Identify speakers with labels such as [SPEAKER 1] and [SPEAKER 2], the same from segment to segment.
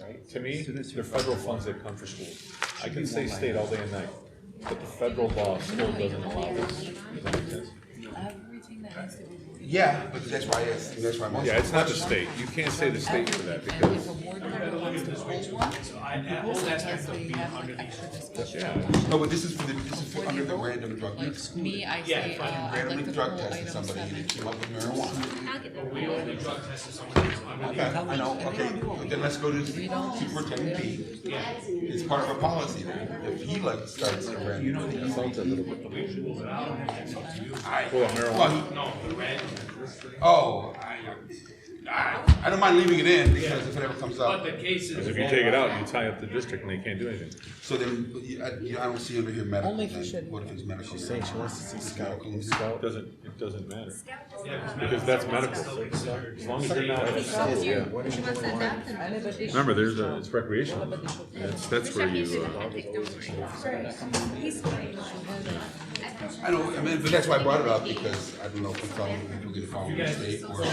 [SPEAKER 1] right? To me, they're federal funds that come for schools. I can say state all day and night, but the federal law still doesn't allow this. Does that make sense?
[SPEAKER 2] Everything that has to be awarded.
[SPEAKER 3] Yeah, but that's why it's, that's why most.
[SPEAKER 1] Yeah, it's not the state. You can't say the state for that
[SPEAKER 2] Everything. And
[SPEAKER 1] because,
[SPEAKER 2] if a board member wants to hold one, the rules suggest that you have like extra discussion.
[SPEAKER 3] No, but this is for the, this is for
[SPEAKER 2] Before
[SPEAKER 3] under
[SPEAKER 2] they
[SPEAKER 3] the
[SPEAKER 2] vote,
[SPEAKER 3] random drug use.
[SPEAKER 2] Like me, I say, uh, I'd like
[SPEAKER 3] Randomly
[SPEAKER 2] to
[SPEAKER 3] drug
[SPEAKER 2] hold
[SPEAKER 3] tested
[SPEAKER 2] item
[SPEAKER 3] somebody and
[SPEAKER 2] seven.
[SPEAKER 3] it came up with marijuana.
[SPEAKER 4] We only drug tested someone who's under
[SPEAKER 3] Okay, I know, okay, but then let's go to Superintendent B. It's part of our policy now. If he like starts a random.
[SPEAKER 1] that sounds a little bit,
[SPEAKER 3] I-
[SPEAKER 1] well, marijuana.
[SPEAKER 3] Well, he-
[SPEAKER 4] No, the red,
[SPEAKER 3] oh, I, I, I don't mind leaving it in because if it ever comes
[SPEAKER 4] but
[SPEAKER 3] up.
[SPEAKER 4] the cases.
[SPEAKER 1] If you take it out, you tie up the district and they can't do anything.
[SPEAKER 3] So then, I, you know, I don't see under here medical.
[SPEAKER 5] Only if you
[SPEAKER 3] then.
[SPEAKER 5] should-
[SPEAKER 3] What if it's medical? She's
[SPEAKER 5] saying she wants to see Scout.
[SPEAKER 1] It doesn't, it doesn't matter. Because that's medical. As long as you're not in a school, yeah.
[SPEAKER 6] She wants to adopt them.
[SPEAKER 1] Remember, there's a, it's recreational. And That's, that's where you, uh,
[SPEAKER 6] He's fine.
[SPEAKER 3] I know, I mean, but that's why I brought it up because I don't know if we follow, if we can follow the state or.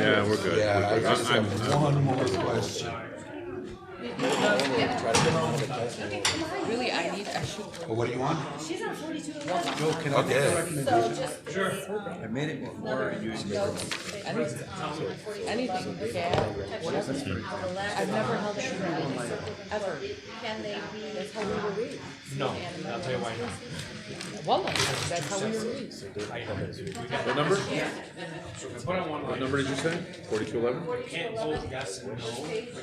[SPEAKER 1] yeah, we're good.
[SPEAKER 3] Yeah, I
[SPEAKER 1] We're good.
[SPEAKER 3] just
[SPEAKER 1] I'm- I'm-
[SPEAKER 3] have one more question.
[SPEAKER 2] Really, I need extra.
[SPEAKER 3] Well, what do you want?
[SPEAKER 6] She's on forty-two eleven.
[SPEAKER 5] Joe, can I make a
[SPEAKER 3] Okay.
[SPEAKER 5] recommendation?
[SPEAKER 4] Sure.
[SPEAKER 6] um,
[SPEAKER 5] I made it before you used it.
[SPEAKER 2] Anything, anything, gas, whatever. I've never held a shooter in my life, ever.
[SPEAKER 6] Can they be?
[SPEAKER 4] No, I'll tell you why
[SPEAKER 2] Well, that's how we were raised.
[SPEAKER 4] not.
[SPEAKER 1] What number?
[SPEAKER 4] So if I put on one
[SPEAKER 1] What
[SPEAKER 4] line,
[SPEAKER 1] number did you say? Forty-two eleven?
[SPEAKER 4] can't vote yes and no.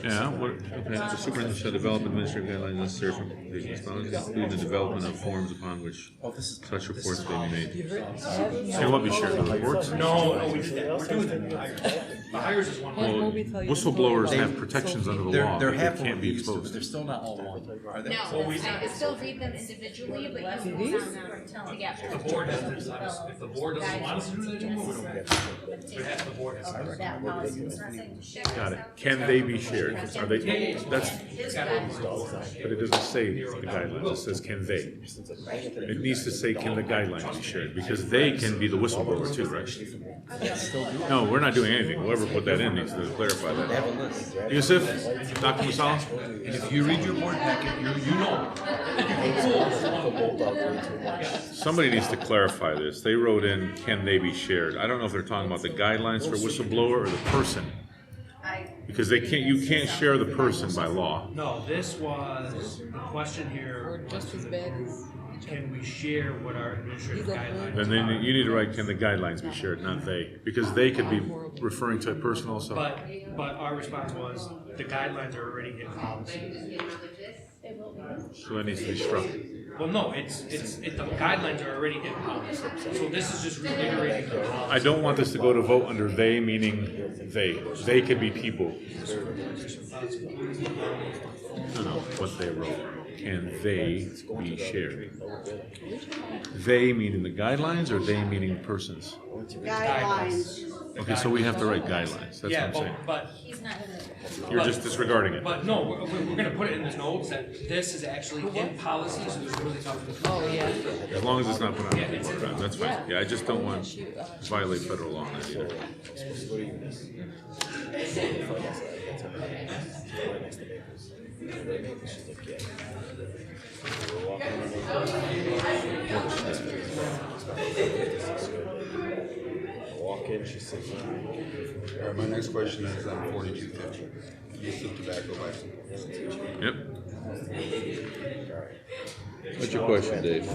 [SPEAKER 1] Yeah, what, okay, the superintendent shall develop administrative guidelines necessary for completion of responses, including the development of forms upon which
[SPEAKER 5] Oh, this is.
[SPEAKER 1] such reports may be made.
[SPEAKER 5] You've written-
[SPEAKER 1] They won't be shared the reports.
[SPEAKER 4] No, no, we did that, we're doing that. The hires is one line.
[SPEAKER 1] Well, whistleblowers have protections under the
[SPEAKER 5] They're,
[SPEAKER 1] law,
[SPEAKER 5] they're
[SPEAKER 1] but they
[SPEAKER 5] half of
[SPEAKER 1] can't
[SPEAKER 5] what
[SPEAKER 1] be
[SPEAKER 5] you used to, but
[SPEAKER 1] exposed.
[SPEAKER 5] they're still not all one, are they?
[SPEAKER 6] No, I could still read them individually, but you can sound them
[SPEAKER 4] If the
[SPEAKER 6] together.
[SPEAKER 4] board doesn't, if the board doesn't want us to do that anymore, we don't have to. But half the board has to.
[SPEAKER 6] That policy is not saying shit.
[SPEAKER 1] Got it. Can they be shared? Are they, that's,
[SPEAKER 6] His guidelines.
[SPEAKER 1] but it doesn't say the guidelines, it says can they. It needs to say can the guidelines be shared, because they can be the whistleblower too, right? No, we're not doing anything, whoever put that in needs to clarify that. Yusuf, Dr. Masal,
[SPEAKER 3] If you read your board packet, you, you know.
[SPEAKER 1] Somebody needs to clarify this. They wrote in, can they be shared? I don't know if they're talking about the guidelines for whistleblower or the person. Because they can't, you can't share the person by law.
[SPEAKER 4] No, this was, the question here
[SPEAKER 2] We're
[SPEAKER 4] was
[SPEAKER 2] just
[SPEAKER 4] to
[SPEAKER 2] as
[SPEAKER 4] the
[SPEAKER 2] bad
[SPEAKER 4] group,
[SPEAKER 2] as each other.
[SPEAKER 4] can we share what our administrative
[SPEAKER 2] He's a
[SPEAKER 4] guidelines
[SPEAKER 1] Then
[SPEAKER 4] are?
[SPEAKER 1] they, you need to write, can the guidelines be shared, not they, because they could be referring to a person also.
[SPEAKER 4] But, but our response was, the guidelines are already in policy.
[SPEAKER 1] So that needs to be struck.
[SPEAKER 4] Well, no, it's, it's, it, the guidelines are already in policy, so this is just reiterating the policy.
[SPEAKER 1] I don't want this to go to vote under they, meaning they. They could be people. No, no, what they wrote. Can they be shared? They meaning the guidelines or they meaning persons?
[SPEAKER 7] guidelines.
[SPEAKER 1] Okay, so we have to write guidelines, that's what
[SPEAKER 4] Yeah,
[SPEAKER 1] I'm
[SPEAKER 4] but,
[SPEAKER 1] saying.
[SPEAKER 4] but,
[SPEAKER 6] He's not in the.
[SPEAKER 1] You're just disregarding it.
[SPEAKER 4] but no, we're, we're we're gonna put it in the notes that this is actually in policy, so there's really nothing.
[SPEAKER 2] Oh, yeah.
[SPEAKER 1] As long as it's not put on the vote, right, that's fine. Yeah, I just don't want
[SPEAKER 2] uh,
[SPEAKER 1] to violate federal law on that either.
[SPEAKER 5] Walk in, she says.
[SPEAKER 3] All right, my next question is on forty-two fifty, use of tobacco license.
[SPEAKER 1] Yep. What's your question, Dave?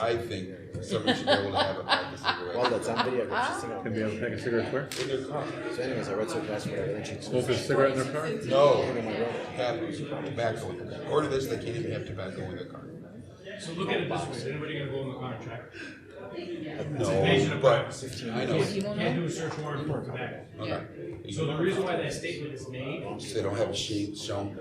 [SPEAKER 3] I think someone should be able to have a pack of
[SPEAKER 5] Well,
[SPEAKER 3] cigarettes.
[SPEAKER 5] that's on video, but she's singing.
[SPEAKER 1] Can they have a pack of cigarettes where?
[SPEAKER 5] So anyways, I read some passport, I read she's.
[SPEAKER 1] Smoke a cigarette in their car?
[SPEAKER 3] No, have tobacco in their car. Order this, they can't even have tobacco in their car.
[SPEAKER 4] So look at it this way, is anybody gonna go in the car and check?
[SPEAKER 3] No, but, I know,
[SPEAKER 2] You won't
[SPEAKER 4] Can't
[SPEAKER 2] know.
[SPEAKER 4] do a search warrant for tobacco.
[SPEAKER 3] okay.
[SPEAKER 4] So the reason why that statement is made,
[SPEAKER 3] They don't have a sheet shown,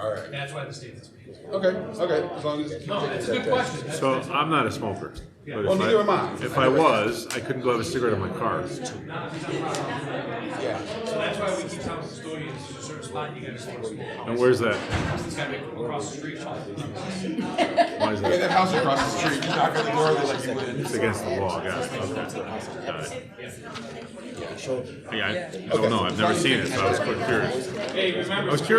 [SPEAKER 3] all right.
[SPEAKER 4] that's why the statement is made.
[SPEAKER 3] Okay, okay, as long as. you
[SPEAKER 4] No,
[SPEAKER 3] take
[SPEAKER 4] that's a
[SPEAKER 3] that
[SPEAKER 4] good
[SPEAKER 3] back.
[SPEAKER 4] question. That's-
[SPEAKER 1] So I'm not a smoker. but if
[SPEAKER 3] Well, neither
[SPEAKER 1] I-
[SPEAKER 3] am I.
[SPEAKER 1] If I was, I couldn't go have a cigarette in my car.
[SPEAKER 3] Yeah,
[SPEAKER 4] So that's why we keep telling custodians, there's a certain spot you gotta smoke smoke.
[SPEAKER 1] And where's that?
[SPEAKER 4] It's gotta be across the street.
[SPEAKER 1] Why is
[SPEAKER 3] okay,
[SPEAKER 1] that?
[SPEAKER 3] that house across the street, you knock on the door, they're like, you went in.
[SPEAKER 1] It's against the law, yeah. Okay. Got it. Yeah, I I don't know. I've never seen it, so I was quite curious.
[SPEAKER 4] Hey, remember.
[SPEAKER 1] I was curious